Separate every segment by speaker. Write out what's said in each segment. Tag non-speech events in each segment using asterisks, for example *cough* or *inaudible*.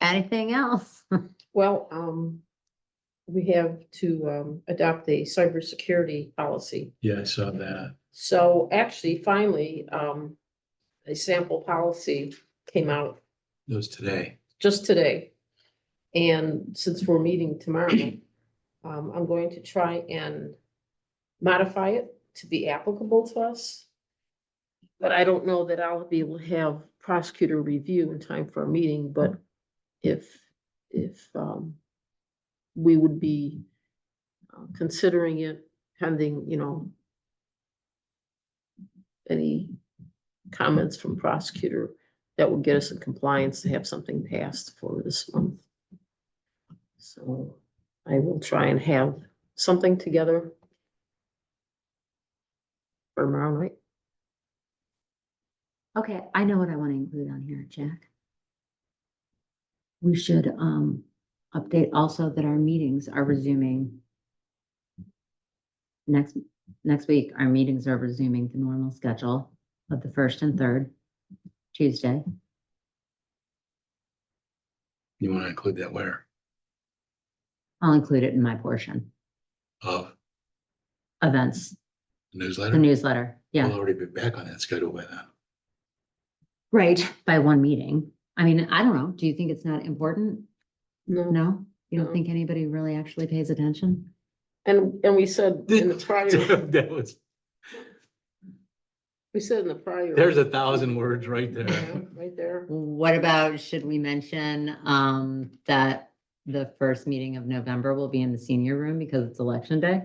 Speaker 1: Anything else? *laughs*
Speaker 2: Well, um, we have to, um, adopt the cybersecurity policy.
Speaker 3: Yeah, I saw that.
Speaker 2: So actually, finally, um, a sample policy came out
Speaker 3: It was today.
Speaker 2: just today. And since we're meeting tomorrow, um, I'm going to try and modify it to be applicable to us. But I don't know that I'll be able to have prosecutor review in time for a meeting, but if, if, um, we would be uh, considering it pending, you know, any comments from prosecutor that would get us in compliance to have something passed for this month. So I will try and have something together for tomorrow night.
Speaker 1: Okay, I know what I want to include on here, Jack. We should um update also that our meetings are resuming. Next, next week, our meetings are resuming the normal schedule of the first and third Tuesday.
Speaker 3: You want to include that where?
Speaker 1: I'll include it in my portion,
Speaker 3: Of
Speaker 1: events,
Speaker 3: the
Speaker 1: the
Speaker 3: newsletter?
Speaker 1: newsletter,
Speaker 3: We'll
Speaker 1: Mm, yeah,
Speaker 3: already be back on that schedule by then.
Speaker 1: *laughs* right, by one meeting. I mean, I don't know, do you think it's not important?
Speaker 2: No,
Speaker 1: No? You
Speaker 2: No.
Speaker 1: don't think anybody really actually pays attention?
Speaker 2: and, and we
Speaker 3: *laughs*
Speaker 2: said in the prior,
Speaker 3: That was,
Speaker 2: we said in the prior.
Speaker 3: there's a thousand words right
Speaker 2: Yeah,
Speaker 3: there.
Speaker 2: Right there.
Speaker 1: What about, should we mention, um, that the first meeting of November will be in the senior room because it's election day?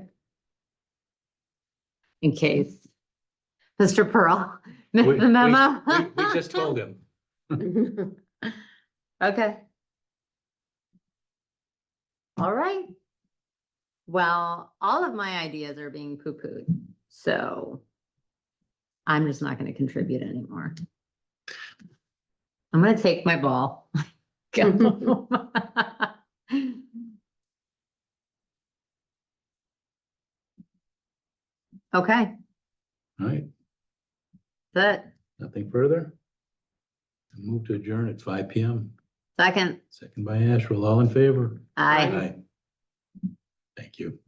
Speaker 1: In case, Mr. Pearl, *laughs* missed
Speaker 3: We-
Speaker 1: the
Speaker 3: we-
Speaker 1: memo?
Speaker 3: We we just told him.
Speaker 1: *laughs*
Speaker 3: *laughs*
Speaker 1: Okay. All right. Well, all of my ideas are being poo-pooed, so I'm just not gonna contribute anymore. I'm gonna take my ball.
Speaker 2: *laughs*
Speaker 1: Go. *laughs* Okay,
Speaker 3: All right,
Speaker 1: that,
Speaker 3: nothing further? Move to adjourn at five P M,
Speaker 1: second,
Speaker 3: second by Asherle, all in favor?
Speaker 1: I.
Speaker 2: Aye.
Speaker 3: Thank you.